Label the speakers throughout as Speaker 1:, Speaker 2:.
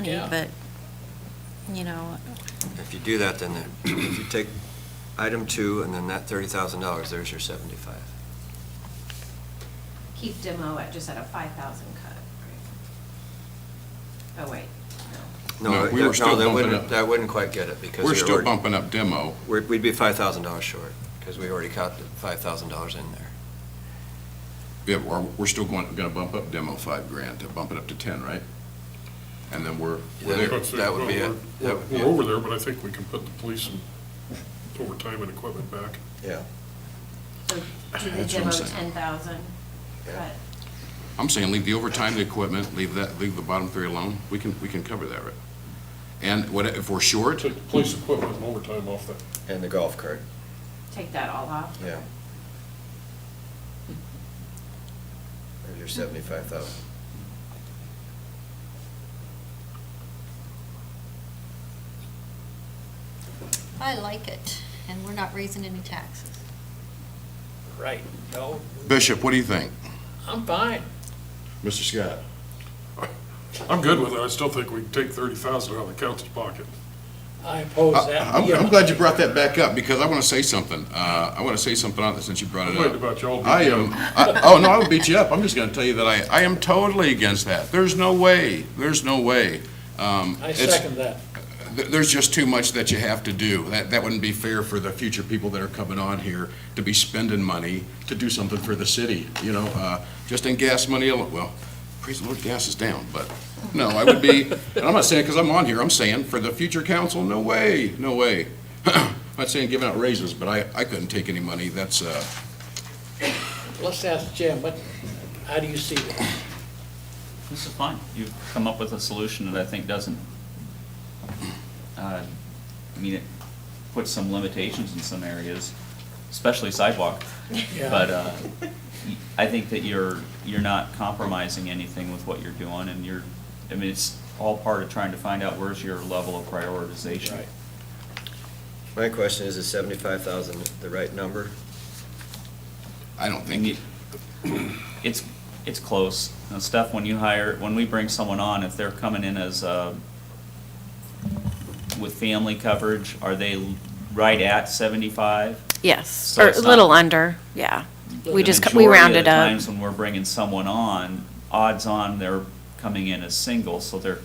Speaker 1: money,
Speaker 2: Yeah.
Speaker 1: but, you know,
Speaker 3: If you do that, then there- if you take item two and then that thirty thousand dollars, there's your seventy-five.
Speaker 4: keep demo at just at a five thousand cut. right? Oh, wait, no.
Speaker 3: No,
Speaker 2: No,
Speaker 3: that-
Speaker 2: we were
Speaker 3: no,
Speaker 2: still
Speaker 3: that
Speaker 2: bumping
Speaker 3: wouldn't,
Speaker 2: up.
Speaker 3: that wouldn't quite get it because.
Speaker 2: We're
Speaker 3: we
Speaker 2: still
Speaker 3: already-
Speaker 2: bumping up demo.
Speaker 3: we're- We'd be five thousand dollars short because we already caught the five thousand dollars in there.
Speaker 2: Yeah, we're, we're still going, gonna bump up demo five grand, to bump it up to ten, right? And then we're, we're
Speaker 3: Yeah.
Speaker 2: there.
Speaker 5: I'd say,
Speaker 3: That would
Speaker 5: well,
Speaker 3: be it.
Speaker 5: we're-
Speaker 3: That would be
Speaker 5: We're
Speaker 3: it.
Speaker 5: over there, but I think we can put the police and overtime and equipment back.
Speaker 3: Yeah.
Speaker 4: So do the
Speaker 2: That's what I'm
Speaker 4: demo
Speaker 2: saying.
Speaker 4: ten thousand
Speaker 3: Yeah.
Speaker 4: cut.
Speaker 2: I'm saying leave the overtime, the equipment, leave that, leave the bottom three alone. We can, we can cover that, right? And what, if we're short,
Speaker 5: Take the police equipment and overtime off that.
Speaker 3: And the golf cart,
Speaker 4: take that all off.
Speaker 3: yeah. There's your seventy-five thousand.
Speaker 6: I like it, and we're not raising any taxes.
Speaker 7: Right, no,
Speaker 2: Bishop, what do you think?
Speaker 7: I'm fine.
Speaker 2: Mr. Scott?
Speaker 5: I'm good with it. I still think we can take thirty thousand out of the council's pocket.
Speaker 7: I oppose that.
Speaker 2: I'm, I'm glad you brought that back up, because I wanna say something. Uh, I wanna say something on this since you brought
Speaker 5: I'm
Speaker 2: it
Speaker 5: worried
Speaker 2: up.
Speaker 5: about y'all.
Speaker 2: I uh, am, I- oh, no, I would beat you up. I'm just gonna tell you that I, I am totally against that. There's no way, there's no way. Um,
Speaker 7: I
Speaker 2: it's-
Speaker 7: second that.
Speaker 2: Th- There's just too much that you have to do. That, that wouldn't be fair for the future people that are coming on here to be spending money to do something for the city, you know, uh, just in gas money alone. Well, praise the Lord, gas is down, but no, I would be, and I'm not saying because I'm on here, I'm saying for the future council, no way, no way. I'm Not saying giving out raises, but I, I couldn't take any money. That's, uh,
Speaker 7: Let's ask Jim, what, how do you see that?
Speaker 8: This is fine. You've come up with a solution that I think doesn't, uh, I mean, it puts some limitations in some areas, especially sidewalk.
Speaker 7: Yeah.
Speaker 8: But uh, I think that you're, you're not compromising anything with what you're doing, and you're, I mean, it's all part of trying to find out where's your level of prioritization.
Speaker 7: Right.
Speaker 3: My question is, is seventy-five thousand the right number?
Speaker 2: I don't
Speaker 8: I mean,
Speaker 2: think,
Speaker 8: It's, it's close. Now, Steph, when you hire, when we bring someone on, if they're coming in as, uh, with family coverage, are they right at seventy-five?
Speaker 1: yes,
Speaker 8: So
Speaker 1: or a
Speaker 8: it's not-
Speaker 1: little under, yeah. We
Speaker 8: The
Speaker 1: just, cu- we
Speaker 8: majority of
Speaker 1: rounded
Speaker 8: the
Speaker 1: up.
Speaker 8: Times when we're bringing someone on, odds on they're coming in as single, so they're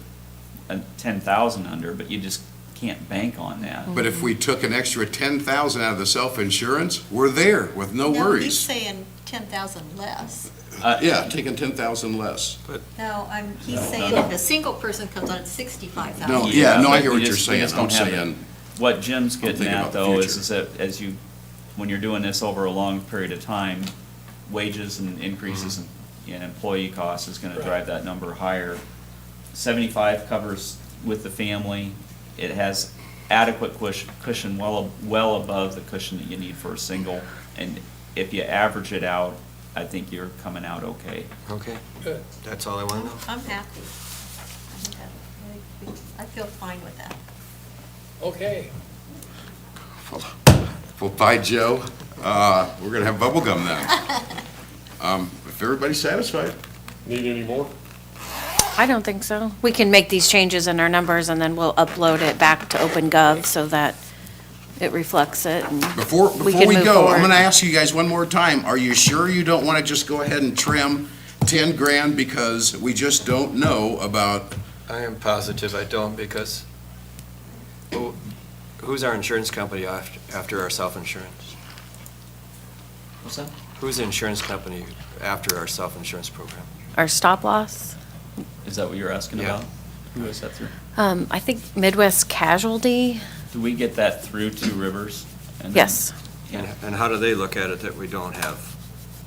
Speaker 8: uh, ten thousand under, but you just can't bank on that.
Speaker 2: but if we took an extra ten thousand out of the self-insurance, we're there with no
Speaker 6: No, he's
Speaker 2: worries.
Speaker 6: saying ten thousand less.
Speaker 8: Uh,
Speaker 2: Yeah, taking ten thousand less.
Speaker 6: No, I'm, he's saying if a single person comes on, it's sixty-five thousand.
Speaker 2: No, Oh, yeah, no, I hear
Speaker 8: but
Speaker 2: what
Speaker 8: you
Speaker 2: you're
Speaker 8: just- you
Speaker 2: saying.
Speaker 8: just
Speaker 2: I'm
Speaker 8: don't have it.
Speaker 2: saying,
Speaker 8: What Jim's getting
Speaker 2: thinking
Speaker 8: at
Speaker 2: about the
Speaker 8: though is,
Speaker 2: future.
Speaker 8: is that as you, when you're doing this over a long period of time, wages and increases
Speaker 2: Mm-hmm.
Speaker 8: in, in employee costs is gonna
Speaker 7: Right.
Speaker 8: drive that number higher. Seventy-five covers with the family, it has adequate cush- cushion, well, well above the cushion that you need for a single. And if you average it out, I think you're coming out okay.
Speaker 3: Okay,
Speaker 7: Good.
Speaker 3: that's all I want to know.
Speaker 6: I'm happy. I think that- I feel fine with that.
Speaker 7: Okay,
Speaker 2: well, bye, Joe. Uh, We're gonna have bubble gum now. Um, If everybody's satisfied,
Speaker 5: Need any more?
Speaker 1: I don't think so. We can make these changes in our numbers and then we'll upload it back to OpenGov so that it reflects it and
Speaker 2: before,
Speaker 1: We
Speaker 2: before
Speaker 1: can
Speaker 2: we
Speaker 1: move
Speaker 2: go, I'm
Speaker 1: forward.
Speaker 2: gonna ask you guys one more time. Are you sure you don't wanna just go ahead and trim 10 grand because we just don't know about,
Speaker 3: I am positive I don't because who- who's our insurance company after after our self-insurance?
Speaker 8: What's that?
Speaker 3: Who's the insurance company after our self-insurance program?
Speaker 1: our stop loss.
Speaker 8: Is that what you're asking
Speaker 3: Yeah.
Speaker 8: about? Who is that through?
Speaker 1: Um, I think Midwest Casualty,
Speaker 8: Do we get that through Two Rivers? And then-
Speaker 1: yes.
Speaker 3: And
Speaker 8: Yeah,
Speaker 3: and how do they look at it that we don't have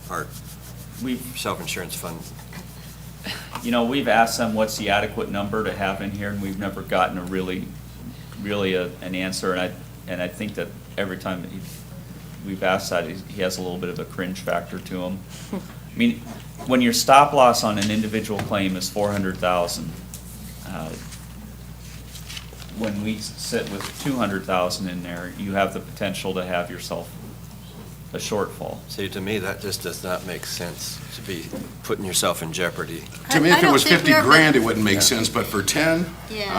Speaker 3: our
Speaker 8: we've
Speaker 3: self-insurance fund?
Speaker 8: you know, we've asked them what's the adequate number to have in here, and we've never gotten a really, really a, an answer, and I, and I think that every time that he, we've asked that, he's- he has a little bit of a cringe factor to him. I mean, when your stop loss on an individual claim is four hundred thousand, uh, when we sit with two hundred thousand in there, you have the potential to have yourself a shortfall.
Speaker 3: See, to me, that just does not make sense to be putting yourself in jeopardy.
Speaker 2: To me,
Speaker 6: I- I
Speaker 2: if it
Speaker 6: don't
Speaker 2: was
Speaker 6: think
Speaker 2: 50
Speaker 6: we're-
Speaker 2: grand, it wouldn't make sense, but for 10,
Speaker 6: Yeah.